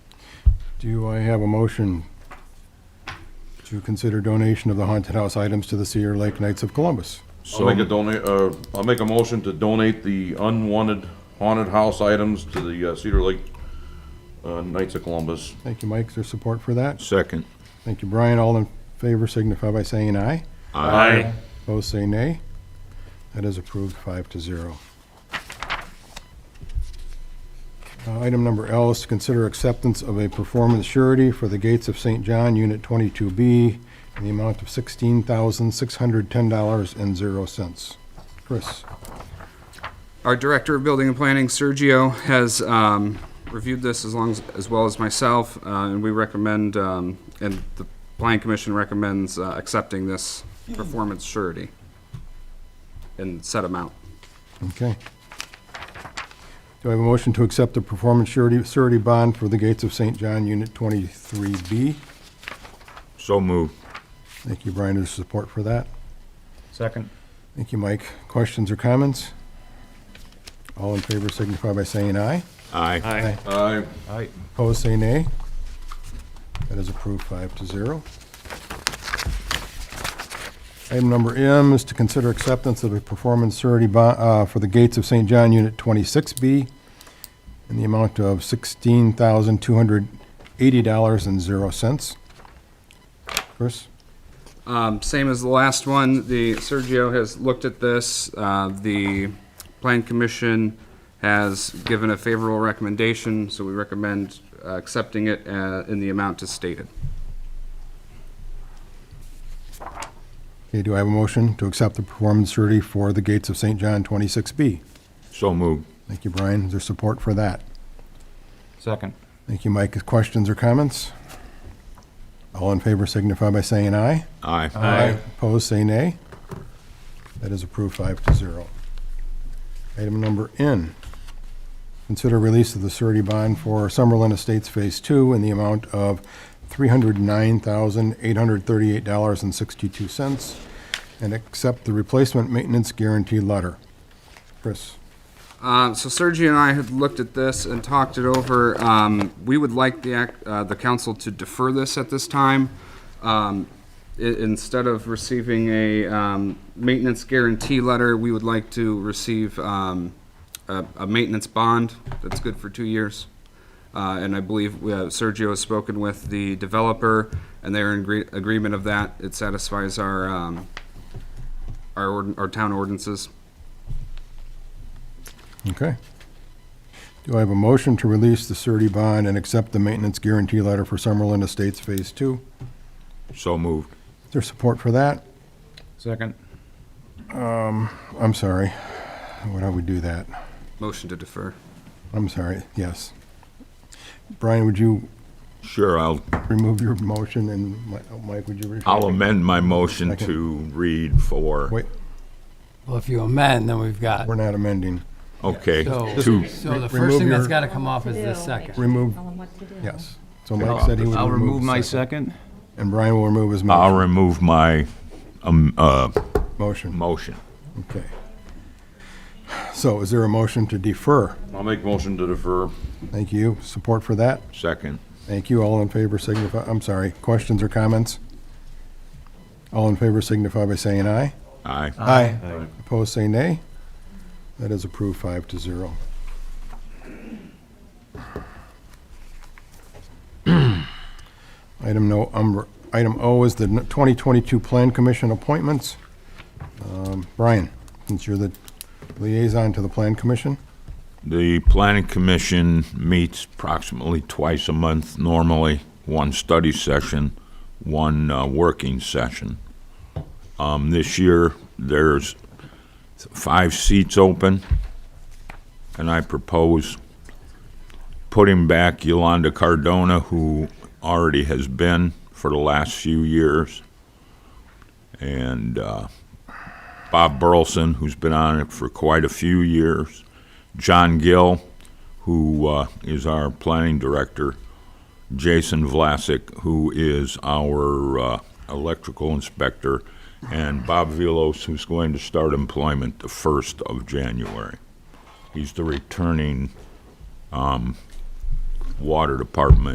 Do I have a motion to consider donation of the haunted house items to the Cedar Lake Knights of Columbus? I'll make a donate, uh, I'll make a motion to donate the unwanted haunted house items to the uh, Cedar Lake, uh, Knights of Columbus. Thank you, Mike, for your support for that. Second. Thank you, Brian. All in favor signify by saying aye. Aye. Opposed, say nay. That is approved five to zero. Uh, Item number L is to consider acceptance of a performance surety for the Gates of St. John, Unit 22B, in the amount of $16,610.00. Chris? Our Director of Building and Planning, Sergio, has um, reviewed this as long as, as well as myself, uh, and we recommend, um, and the Plan Commission recommends uh, accepting this performance surety in set amount. Okay. Do I have a motion to accept the performance surety, surety bond for the Gates of St. John, Unit 23B? So moved. Thank you, Brian, for your support for that. Second. Thank you, Mike. Questions or comments? All in favor signify by saying aye. Aye. Aye. Aye. Aye. Opposed, say nay. That is approved five to zero. Item number M is to consider acceptance of a performance surety bond, uh, for the Gates of St. John Unit twenty-six B in the amount of sixteen thousand two hundred eighty dollars and zero cents. Chris? Um, Same as the last one, the, Sergio has looked at this. Uh, The Plan Commission has given a favorable recommendation, so we recommend uh, accepting it uh, in the amount as stated. Okay, do I have a motion to accept the performance surety for the Gates of St. John twenty-six B? So moved. Thank you, Brian. Is there support for that? Second. Thank you, Mike. Questions or comments? All in favor signify by saying aye. Aye. Aye. Opposed, say nay. That is approved five to zero. Item number N, consider release of the surety bond for Summerlin Estates Phase Two in the amount of $309,838.62 and accept the replacement maintenance guarantee letter. Chris? Um, so Sergio and I had looked at this and talked it over. Um, we would like the act, uh, the council to defer this at this time. Um, i- instead of receiving a, um, maintenance guarantee letter, we would like to receive, um, a, a maintenance bond that's good for two years. Uh, and I believe uh, Sergio has spoken with the developer and they're in agree- agreement of that. It satisfies our, um, our, ord- our town ordinances. Okay. Do I have a motion to release the surety bond and accept the maintenance guarantee letter for Summerlin Estates Phase Two? So moved. Is there support for that? Second. I'm sorry. Why don't we do that? Motion to defer. I'm sorry, yes. Brian, would you Sure, I'll, remove your motion and Mi- oh, Mike, would you? re- I'll amend my motion Second. to read for, Wait, Well, if you amend, then we've got, we're not amending. okay, so, two, so the remove first thing your- that's gotta come off is do. this second. Remove, Tell them what to do. yes. So Mike said he would remove. I'll remove my the second, second. And Brian will remove his I'll mo- remove my, um, uh, motion. motion. Okay. So is there a motion to defer? I'll make motion to defer. Thank you. Support for that? Second. Thank you. All in favor signify, I'm sorry, questions or comments? All in favor signify by saying aye. Aye. Aye. Opposed, say nay. That is approved five to zero. Item no, um, item O is the 2022 Plan Commission appointments. Um, Brian, since you're the liaison to the Plan Commission, The planning commission meets approximately twice a month normally, one study session, one uh, working session. Um, This year, there's five seats open, and I propose putting back Yolanda Cardona, who already has been for the last few years, and uh, Bob Burleson, who's been on it for quite a few years, John Gill, who uh, is our planning director, Jason Vlasic, who is our uh, electrical inspector, and Bob Velos, who's going to start employment the 1st of January. He's the returning um, water department